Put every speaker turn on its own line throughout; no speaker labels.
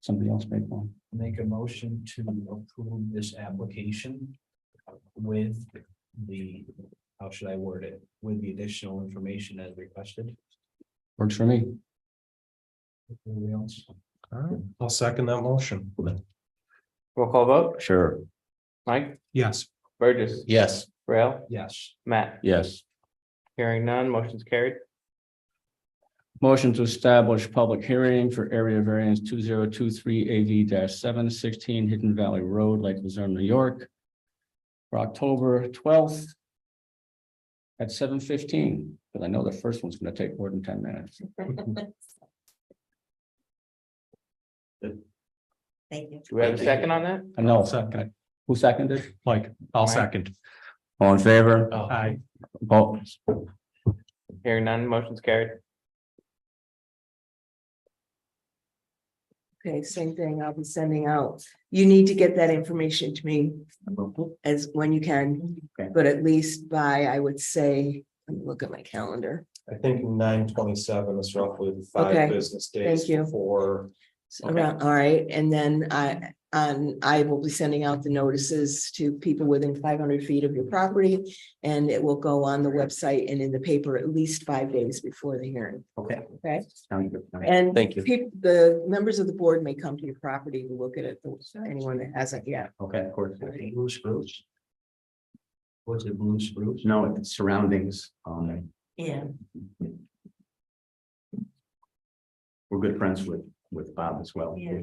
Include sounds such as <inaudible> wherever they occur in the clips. somebody else paid for. them.
make a motion to approve this application with the, how should I word it, with the additional information as requested.
Works for me.
Anything else?
All right, I'll second that motion.
Roll call vote,
Sure.
Mike,
Yes,
Burgess,
Yes,
Rail,
Yes,
Matt,
yes.
hearing none, motion's carried.
Motion to establish public hearing for area variance two zero two three AV seven sixteen Hidden Valley Road, Lake Luzerne, New York. For October twelfth. At seven fifteen, because I know the first one's gonna take more than ten minutes.
Thank you.
Do we have a second on that?
I know,
Second.
who seconded?
Mike, I'll
Mike?
second.
All in favor?
Aye.
Opposed?
Hearing none, motion's carried.
Okay, same thing. I'll be sending out. You need to get that information to me as when you can.
Okay.
But at least by, I would say, let me look at my calendar.
I think nine twenty-seven is roughly
Okay,
business
thank you.
before.
So Around, all right, and then I, on, I will be sending out the notices to people within five hundred feet of your property. And it will go on the website and in the paper at least five days before the hearing.
Okay.
Okay,
Sound good.
and
Thank you.
peop- The members of the board may come to your property to look at it, anyone that hasn't yet.
Okay, of course.
blue spruce. Was it blue spruce?
No, it's surroundings, um,
Yeah.
we're good friends with, with Bob as well.
Yeah.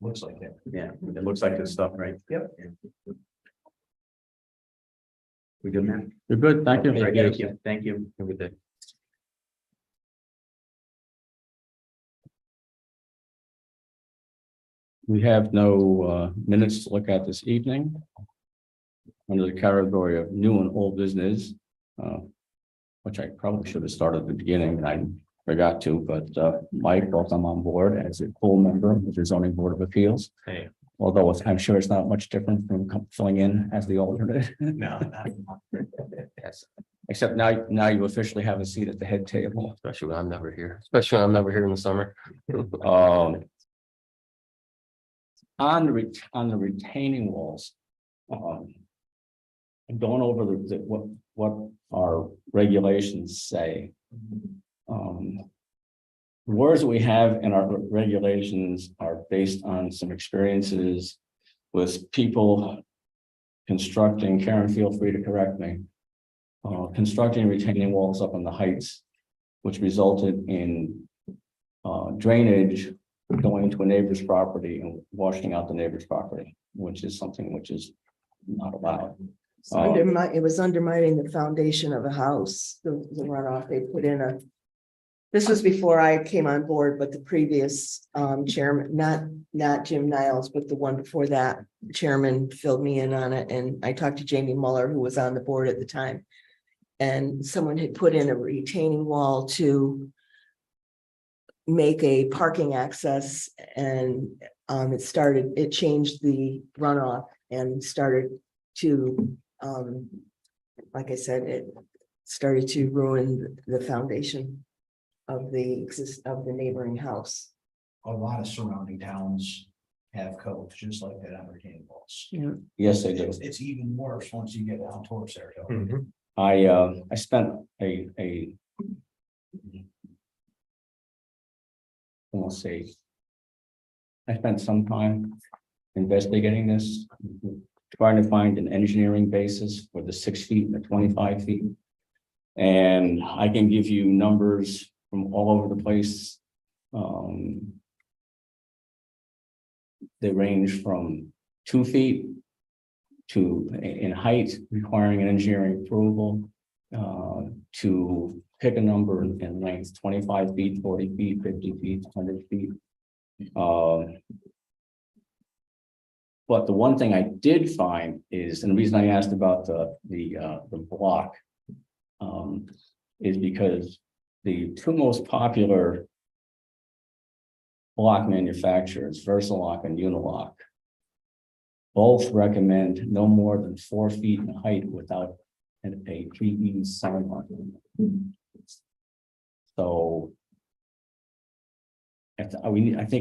Looks like that.
Yeah, it looks like this stuff, right? Yep. We good, man? You're good, thank you. Thank you, thank you. Have a good day. We have no uh, minutes to look at this evening. Under the category of new and old business, uh, which I probably should have started at the beginning, and I forgot to, but uh, Mike, welcome on board as a full member of the zoning board of appeals.
Hey.
Although it's- I'm sure it's not much different from com- filling in as the alternate.
No, <laughs>
Yes. Except now, now you officially have a seat at the head table.
Especially when I'm never here, especially when I'm never here in the summer.
Um. On the, ret- on the retaining walls. Um. I'm Going over the, the- what, what our regulations say. Um. Words we have in our regulations are based on some experiences with people. Constructing, Karen, feel free to correct me. Uh, constructing retaining walls up on the heights. Which resulted in uh, drainage going to a neighbor's property and washing out the neighbor's property, which is something which is not allowed.
It's undermi- it was undermining the foundation of a house, the the runoff, they put in a. This was before I came on board, but the previous um chairman, not not Jim Niles, but the one before that. Chairman filled me in on it and I talked to Jamie Muller, who was on the board at the time. And someone had put in a retaining wall to. Make a parking access and um it started, it changed the runoff and started to um, like I said, it started to ruin the foundation of the exist, of the neighboring house.
A lot of surrounding towns have codes just like that on retaining walls.
Yeah.
Yes, they do.
It's, it's even worse once you get down towards Saratoga.
Mhm.
I, uh, I spent a, a. I'll say. I spent some time investigating this, trying to find an engineering basis for the six feet and the twenty-five feet. And I can give you numbers from all over the place. Um. They range from two feet to, in in height, requiring an engineering approval. Uh, to pick a number in length, twenty-five feet, forty feet, fifty feet, hundred feet. Uh, But the one thing I did find is, and the reason I asked about the, the, uh, the block. Um, is because the two most popular. Block manufacturers, Versalock and Unilock. Both recommend no more than four feet in height without an a pre-being sign. So. I, th- I- we, need- I think